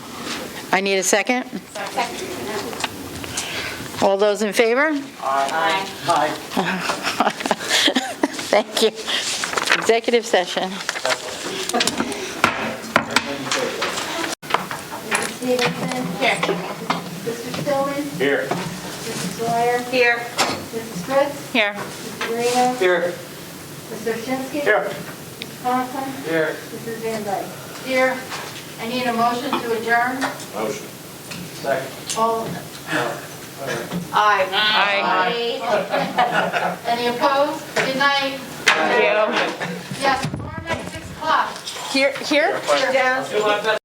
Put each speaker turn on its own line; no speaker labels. I need a second. All those in favor?
Aye.
Thank you. Executive session.
Mrs. Stevenson? Here. Mr. Stillman?
Here.
Mrs. Dwyer? Here. Mrs. Fritz?
Here.
Mrs. Reno?
Here.
Mr. Shinsky? Mrs. Thompson?
Here.
Mrs. Van Dyke? Here. I need a motion to adjourn.
Motion. Second.
All. Aye. Aye. Any opposed? Good night. Thank you. Yes, tomorrow night, 6 o'clock.
Here, here?
Here.